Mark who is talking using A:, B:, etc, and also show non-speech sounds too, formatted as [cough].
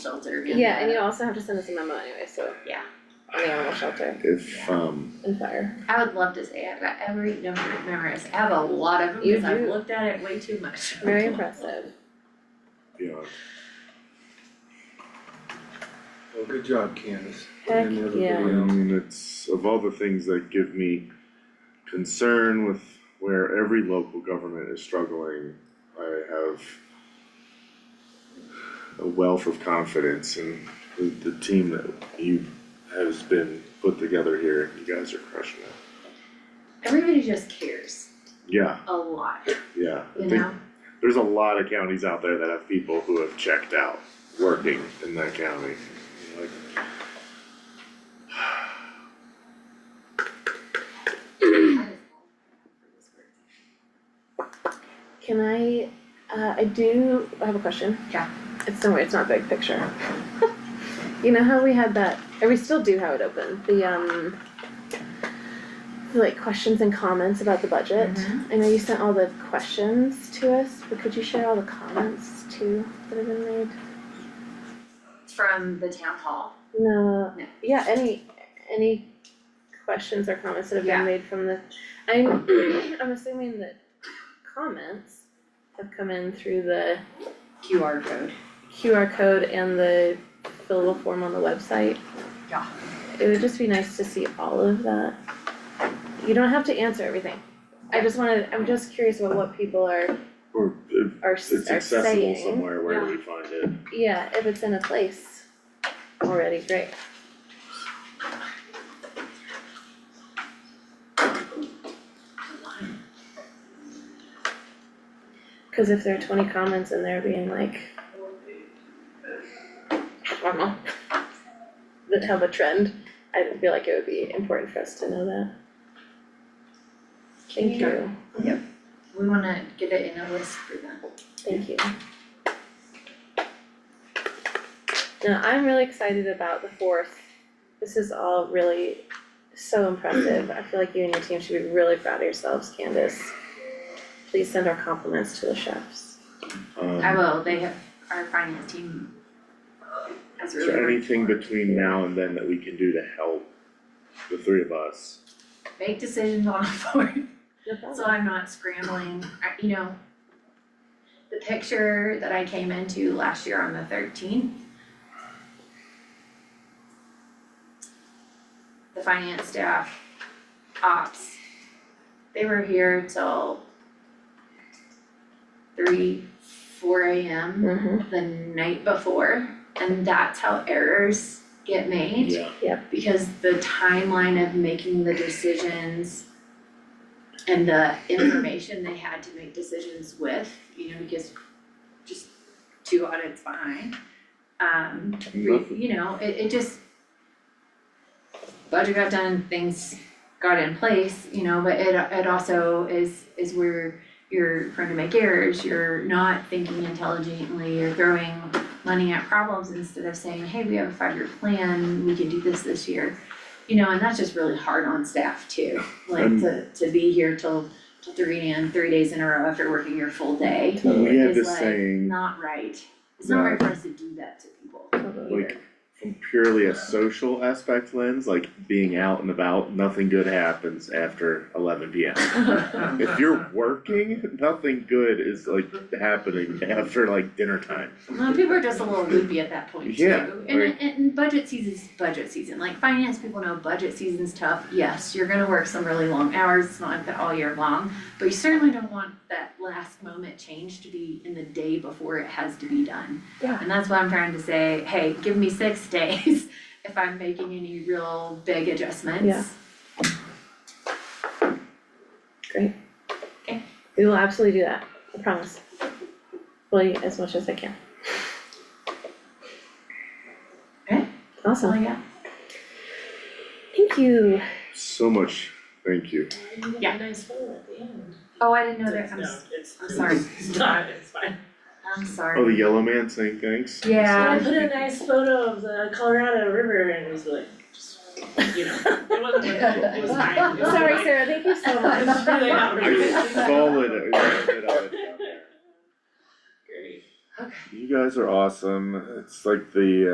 A: shelter. in
B: Yeah, and
A: the-
B: you also have to send us a memo anyway, so.
A: Yeah.
B: On the animal shelter
C: If, um,
B: and fire.
A: I would love to say I've got every number memorized, I have a lot of them,
B: You
A: because I've
B: do.
A: looked at it way too much.
B: Very impressive.
C: you know,
D: Well, good job, Candace.
B: Heck,
D: And everybody
B: yeah.
C: I
D: else.
C: mean, it's, of all the things that give me concern with where every local government is struggling, I have a wealth of confidence in the, the team that you has been put together here, you guys are crushing it.
A: Everybody just cares
C: Yeah,
A: a lot,
C: yeah, I
A: you
C: think
A: know?
C: there's a lot of counties out there that have people who have checked out working in that county. Like,
B: Can I, uh, I do I have a question.
A: Yeah.
B: It's somewhere, it's not big picture. [laughs] You know how we had that, or we still do have it open, the um. the, Like questions and comments about the budget. I know you sent all the questions to us, but could you share all the comments too that have been made?
A: From the town hall,
B: No,
A: No.
B: yeah, any, any questions or comments that have
A: Yeah.
B: been made from the, I'm, [clears throat] I'm assuming that comments have come in through the
A: QR code.
B: QR code and the fillable form on the website.
A: Yeah.
B: It would just be nice to see all of that. You don't have to answer everything. I just wanted, I'm just curious about what people are,
C: Or if
B: are, are saying.
C: it's accessible somewhere, where do we find it?
B: Yeah, if it's in a place already, great. Cause if there are twenty comments in there being like. I don't know. That have a trend, I feel like it would be important for us to know that. Thank you,
A: We wanna get it in a list for them.
B: thank you. Now, I'm really excited about the fourth. This is all really so impressive. I feel like you and your team should be really proud of yourselves, Candace. Please send our compliments to the chefs.
C: Um,
A: I will, they have, our finance team has
C: Is
A: really
C: there anything
A: worked
C: between now and then that we can do to help the three of us?
A: hard. Make decisions on [laughs] the board,
B: No
A: so I'm not scrambling, I, you know. The picture that I came into last year on the thirteenth. The finance staff, ops, they were here till three, four AM
B: Mm-hmm,
A: the night before, and that's how errors get made.
C: Yeah.
A: Because the timeline of making the decisions and the information they had to make decisions with, you know, because just two audits behind. Um, re- you know, it it just budget got done, things got in place, you know, but it it also is is where you're prone to make errors, you're not thinking intelligently, you're throwing money at problems instead of saying, hey, we have a five-year plan, we can do this this year. You know, and that's just really hard on staff too, like
C: Um,
A: to to be here till till three AM, three days in a row after working your full day.
C: We had
A: is
C: this
A: like
C: saying,
A: Not right, it's not
C: Yeah.
A: right for us to do that to people.
B: totally.
C: like, from purely a social aspect lens, like being out and about, nothing good happens after
A: [laughs]
C: eleven P M. If you're working, nothing good is like happening after like dinner time.
A: Well, people are just a little loopy at that point too.
C: Yeah,
A: And
C: right.
A: and budget season is budget season, like finance people know budget season's tough, yes, you're gonna work some really long hours, it's not like that all year long. But you certainly don't want that last moment change to be in the day before it has to be done.
B: Yeah.
A: And that's why I'm trying to say, hey, give me six [laughs] days if I'm making any real big adjustments.
B: Yeah. Great.
A: Okay.
B: We will absolutely do that, I promise. Will as much as I can.
A: Okay. So
B: Awesome,
A: yeah,
B: thank you.
C: So much, thank you.
E: You got
A: Yeah.
E: a nice photo at the end.
A: oh, I didn't know that,
E: It's-
A: I'm,
E: no,
A: s-
E: it's-
A: I'm sorry.
E: It's [laughs] not, it's fine.
A: I'm
C: Oh, the
A: sorry.
C: yellow man saying thanks?
E: I
A: Yeah, [laughs]
E: put a nice photo of the Colorado River and it was like, just, you know, it wasn't
A: [laughs]
E: like, it was fine. It was
B: Sorry,
E: fine.
B: Sarah, thank you [laughs] so
E: It
B: much.
E: [laughs] was really not
C: I
E: really
C: saw it, I saw it down there.
E: great.
C: You guys are awesome. It's like the